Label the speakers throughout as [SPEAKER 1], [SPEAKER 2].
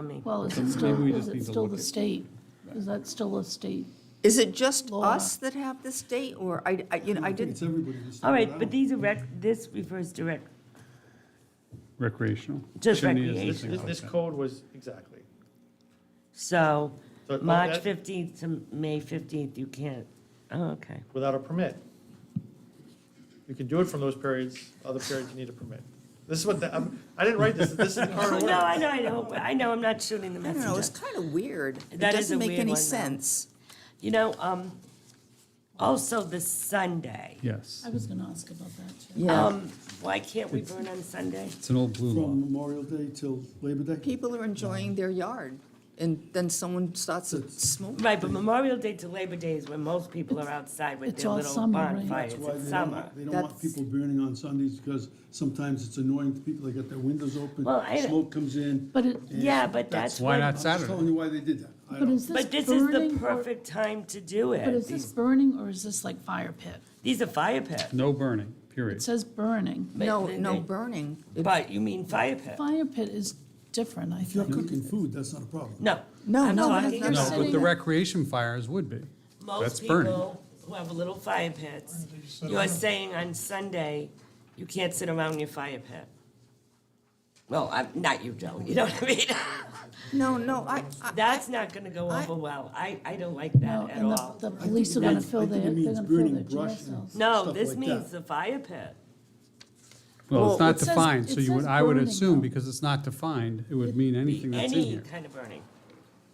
[SPEAKER 1] from me.
[SPEAKER 2] Well, is
[SPEAKER 3] So
[SPEAKER 2] it
[SPEAKER 3] maybe
[SPEAKER 2] still,
[SPEAKER 3] we
[SPEAKER 2] is
[SPEAKER 3] just
[SPEAKER 2] it
[SPEAKER 3] need to
[SPEAKER 2] still
[SPEAKER 3] look
[SPEAKER 2] the
[SPEAKER 3] at-
[SPEAKER 2] state? Is that still a state?
[SPEAKER 4] Is it just
[SPEAKER 2] Laura.
[SPEAKER 4] us that have this date, or I, I- you know, I
[SPEAKER 3] I think
[SPEAKER 4] didn't,
[SPEAKER 3] it's everybody that's.
[SPEAKER 1] All right, but these are rec, this refers to rec,
[SPEAKER 3] Recreational.
[SPEAKER 1] Just
[SPEAKER 3] Shouldn't be as
[SPEAKER 1] recreation.
[SPEAKER 3] distinct
[SPEAKER 5] This, this
[SPEAKER 3] like that.
[SPEAKER 5] code was, exactly.
[SPEAKER 1] so
[SPEAKER 5] So, oh,
[SPEAKER 1] March
[SPEAKER 5] that-
[SPEAKER 1] 15th to May 15th, you can't, oh, okay.
[SPEAKER 5] Without a permit. You can do it from those periods, other periods you need a permit. This is what, the- I'm- I didn't write this, this is the
[SPEAKER 1] No,
[SPEAKER 5] current
[SPEAKER 1] I
[SPEAKER 5] order.
[SPEAKER 1] know, I know, I know, I'm not shooting the
[SPEAKER 4] I don't know, it's
[SPEAKER 1] messenger.
[SPEAKER 4] kind of weird. It
[SPEAKER 1] That is a
[SPEAKER 4] doesn't make
[SPEAKER 1] weird
[SPEAKER 4] any
[SPEAKER 1] one, though.
[SPEAKER 4] sense.
[SPEAKER 1] You know, um, also the Sunday.
[SPEAKER 3] Yes,
[SPEAKER 2] I was going to ask about that, too.
[SPEAKER 4] Yeah.
[SPEAKER 1] Um, why can't we burn on Sunday?
[SPEAKER 3] it's an old blue law.
[SPEAKER 6] From Memorial Day till Labor Day?
[SPEAKER 4] People are enjoying their yard, and then someone starts to smoke.
[SPEAKER 1] Right, but Memorial Day to Labor Day is when most people are outside with
[SPEAKER 2] It's
[SPEAKER 1] their
[SPEAKER 2] all
[SPEAKER 1] little
[SPEAKER 2] summer, right?
[SPEAKER 1] bonfires,
[SPEAKER 6] That's why
[SPEAKER 1] it's
[SPEAKER 6] they
[SPEAKER 1] summer.
[SPEAKER 6] don't, they don't want
[SPEAKER 4] That's-
[SPEAKER 6] people burning on Sundays because sometimes it's annoying to people. They got their windows open,
[SPEAKER 1] Well, I-
[SPEAKER 6] smoke comes in.
[SPEAKER 2] But it,
[SPEAKER 1] Yeah, but that's
[SPEAKER 3] Why
[SPEAKER 1] when-
[SPEAKER 3] not
[SPEAKER 6] I'm just telling
[SPEAKER 3] Saturday?
[SPEAKER 6] you why they did that. I
[SPEAKER 2] but
[SPEAKER 6] don't-
[SPEAKER 2] is this
[SPEAKER 1] But this is the
[SPEAKER 2] burning or-
[SPEAKER 1] perfect time to do
[SPEAKER 2] But is
[SPEAKER 1] it.
[SPEAKER 2] this burning or is this like fire pit?
[SPEAKER 1] These are fire pits.
[SPEAKER 3] No burning,
[SPEAKER 2] It
[SPEAKER 3] period.
[SPEAKER 2] says burning.
[SPEAKER 1] but
[SPEAKER 4] No,
[SPEAKER 1] they-
[SPEAKER 4] no
[SPEAKER 1] they-
[SPEAKER 4] burning. It-
[SPEAKER 1] But you mean fire pit?
[SPEAKER 2] Fire pit is different, I
[SPEAKER 6] If you're
[SPEAKER 2] think.
[SPEAKER 6] cooking food, that's not a problem.
[SPEAKER 1] No.
[SPEAKER 4] No,
[SPEAKER 1] I'm
[SPEAKER 4] no,
[SPEAKER 1] talking
[SPEAKER 4] that's-
[SPEAKER 2] No,
[SPEAKER 1] about
[SPEAKER 2] but
[SPEAKER 3] But the recreation fires would be. That's
[SPEAKER 1] most
[SPEAKER 3] burning.
[SPEAKER 1] people who have little fire pits. You're saying on Sunday, you can't sit around your fire pit. Well, I'm, not you, Joe, you know what I mean?
[SPEAKER 4] No, no, I, I-
[SPEAKER 1] That's not gonna go over well. I, I don't like that at
[SPEAKER 2] And
[SPEAKER 1] all.
[SPEAKER 2] the, the police are going to
[SPEAKER 6] means- I
[SPEAKER 2] fill
[SPEAKER 6] think
[SPEAKER 2] their,
[SPEAKER 6] it
[SPEAKER 2] they're
[SPEAKER 6] means
[SPEAKER 2] going to fill their
[SPEAKER 6] burning brush
[SPEAKER 2] jail
[SPEAKER 6] and-
[SPEAKER 2] cells.
[SPEAKER 1] No,
[SPEAKER 6] stuff
[SPEAKER 1] this
[SPEAKER 6] like
[SPEAKER 1] means
[SPEAKER 6] that.
[SPEAKER 1] the fire pit.
[SPEAKER 3] Well,
[SPEAKER 4] Well,
[SPEAKER 3] it's not
[SPEAKER 2] it says-
[SPEAKER 3] defined, so
[SPEAKER 2] it
[SPEAKER 3] you would,
[SPEAKER 2] says
[SPEAKER 3] I would
[SPEAKER 2] burning,
[SPEAKER 3] assume,
[SPEAKER 2] though.
[SPEAKER 3] because it's not defined, it would mean
[SPEAKER 1] Be
[SPEAKER 3] anything that's in
[SPEAKER 1] any
[SPEAKER 3] here.
[SPEAKER 1] kind of burning.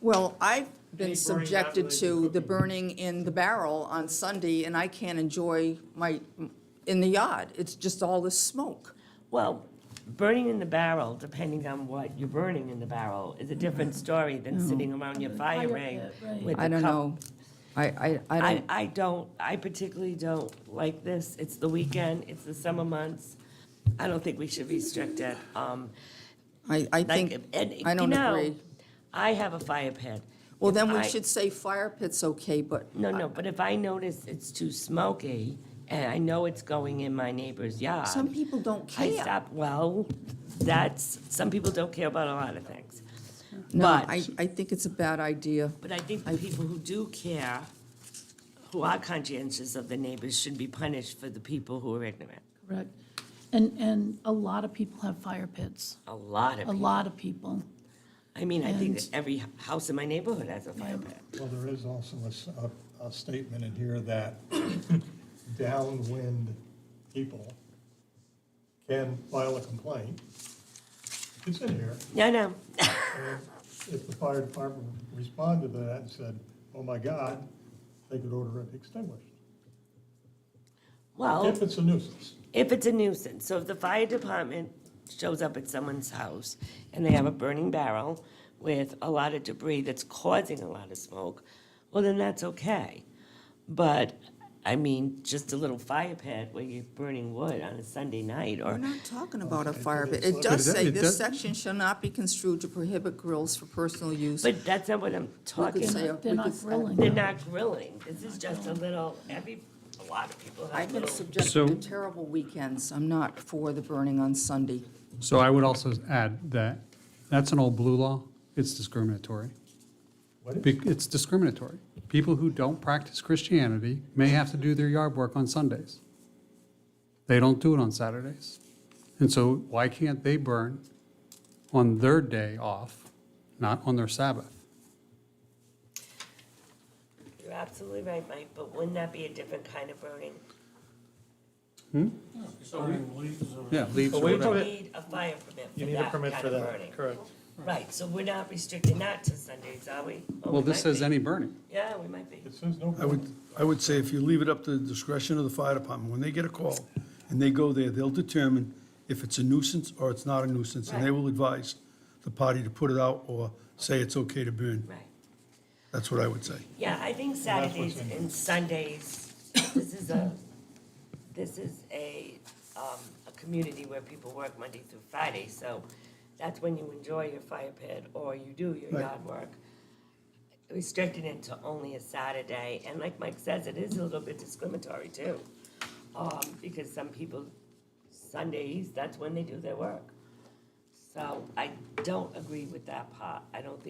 [SPEAKER 4] well, I've been
[SPEAKER 5] burning
[SPEAKER 4] subjected
[SPEAKER 5] after they
[SPEAKER 4] to
[SPEAKER 5] cook
[SPEAKER 4] the
[SPEAKER 5] it.
[SPEAKER 4] burning in the barrel on Sunday, and I can't enjoy my, in the yard. It's just all this smoke.
[SPEAKER 1] Well, burning in the barrel, depending on what you're burning in the barrel, is a different story than sitting around your fire
[SPEAKER 2] Fire
[SPEAKER 1] ring
[SPEAKER 2] pit, right.
[SPEAKER 1] with
[SPEAKER 4] I
[SPEAKER 1] a
[SPEAKER 4] don't
[SPEAKER 1] cup
[SPEAKER 4] know. I, I, I
[SPEAKER 1] I,
[SPEAKER 4] don't,
[SPEAKER 1] I don't, I particularly don't like this. It's the weekend, it's the summer months. I don't think we should restrict it. Um,
[SPEAKER 4] I, I
[SPEAKER 1] like,
[SPEAKER 4] think,
[SPEAKER 1] and,
[SPEAKER 4] I
[SPEAKER 1] you
[SPEAKER 4] don't
[SPEAKER 1] know,
[SPEAKER 4] agree.
[SPEAKER 1] I have a fire pit.
[SPEAKER 4] Well,
[SPEAKER 1] If
[SPEAKER 4] then we
[SPEAKER 1] I-
[SPEAKER 4] should say fire pit's okay, but.
[SPEAKER 1] No, no, but if I notice it's too smoky and I know it's going in my neighbor's yard.
[SPEAKER 4] Some people don't
[SPEAKER 1] I
[SPEAKER 4] care.
[SPEAKER 1] stop, well, that's, some people don't care about a lot of things.
[SPEAKER 4] No,
[SPEAKER 1] But-
[SPEAKER 4] I, I think it's a bad idea.
[SPEAKER 1] But I think the people who do care, who are conscientious of the neighbors, should be punished for the people who are ignorant.
[SPEAKER 2] Correct. And, and a lot of people have fire pits,
[SPEAKER 1] A lot of
[SPEAKER 2] a
[SPEAKER 1] people.
[SPEAKER 2] lot of people.
[SPEAKER 1] I mean, I think that
[SPEAKER 2] And-
[SPEAKER 1] every h- house in my neighborhood has a fire pit.
[SPEAKER 7] Well, there is also a s- a, a statement in here that downwind people can file a complaint. It's in here.
[SPEAKER 1] Yeah, I know.
[SPEAKER 7] and If the fire department responded to that and said, oh my God, they could order it extinguished.
[SPEAKER 1] Well,
[SPEAKER 7] If it's a nuisance.
[SPEAKER 1] if it's a nuisance, so if the fire department shows up at someone's house and they have a burning barrel with a lot of debris that's causing a lot of smoke, well, then that's okay. But, I mean, just a little fire pit where you're burning wood on a Sunday night
[SPEAKER 4] We're
[SPEAKER 1] or,
[SPEAKER 4] not talking about a fire pit. It does
[SPEAKER 3] But it-
[SPEAKER 4] say,
[SPEAKER 3] it
[SPEAKER 4] this
[SPEAKER 3] does-
[SPEAKER 4] section shall not be construed to prohibit grills for personal use.
[SPEAKER 1] but that's not what I'm talking
[SPEAKER 4] They're
[SPEAKER 2] They're
[SPEAKER 4] say-
[SPEAKER 1] about.
[SPEAKER 4] not-
[SPEAKER 2] not- they're
[SPEAKER 4] we
[SPEAKER 2] not
[SPEAKER 4] could-
[SPEAKER 1] They're
[SPEAKER 2] grilling.
[SPEAKER 1] not grilling. This is just a little, every, a lot of people have
[SPEAKER 4] I've been
[SPEAKER 1] little.
[SPEAKER 4] subjected
[SPEAKER 3] So-
[SPEAKER 4] to terrible weekends. I'm not for the burning on Sunday.
[SPEAKER 3] So I would also add that, that's an old blue law, it's discriminatory.
[SPEAKER 7] What is-
[SPEAKER 3] Bec- It's discriminatory. People who don't practice Christianity may have to do their yard work on Sundays. They don't do it on Saturdays. And so why can't they burn on their day off, not on their Sabbath?
[SPEAKER 1] You're absolutely right, Mike, but wouldn't that be a different kind of burning?
[SPEAKER 3] Yeah, leaves
[SPEAKER 5] But
[SPEAKER 3] or
[SPEAKER 5] we
[SPEAKER 3] whatever.
[SPEAKER 5] probably-
[SPEAKER 1] You need a fire permit
[SPEAKER 5] You
[SPEAKER 1] for
[SPEAKER 5] need a
[SPEAKER 1] that
[SPEAKER 5] permit
[SPEAKER 1] kind
[SPEAKER 5] for
[SPEAKER 1] of
[SPEAKER 5] that,
[SPEAKER 1] burning.
[SPEAKER 5] correct.
[SPEAKER 1] Right, so we're not restricting that to Sundays, are we? Or
[SPEAKER 3] Well,
[SPEAKER 1] we
[SPEAKER 3] this
[SPEAKER 1] might
[SPEAKER 3] says
[SPEAKER 1] be.
[SPEAKER 3] any burning.
[SPEAKER 1] Yeah, we might be.
[SPEAKER 7] It says no.
[SPEAKER 6] I would, I would say if you leave it up to the discretion of the fire department, when they get a call and they go there, they'll determine if it's a nuisance or it's not a nuisance, and they will advise the party to put it out or say it's okay to burn.
[SPEAKER 1] Right.
[SPEAKER 6] That's what I would say.
[SPEAKER 1] Yeah, I think
[SPEAKER 7] that's what's
[SPEAKER 1] Saturdays
[SPEAKER 7] in there.
[SPEAKER 1] and Sundays, this is a, this is a, um, a community where people work Monday through Friday, so that's when you enjoy your fire pit or you do your
[SPEAKER 6] Right.
[SPEAKER 1] yard work. Restricting it to only a Saturday, and like Mike says, it is a little bit discriminatory too. Um, because some people, Sundays, that's when they do their work. So I don't agree with that part. I don't think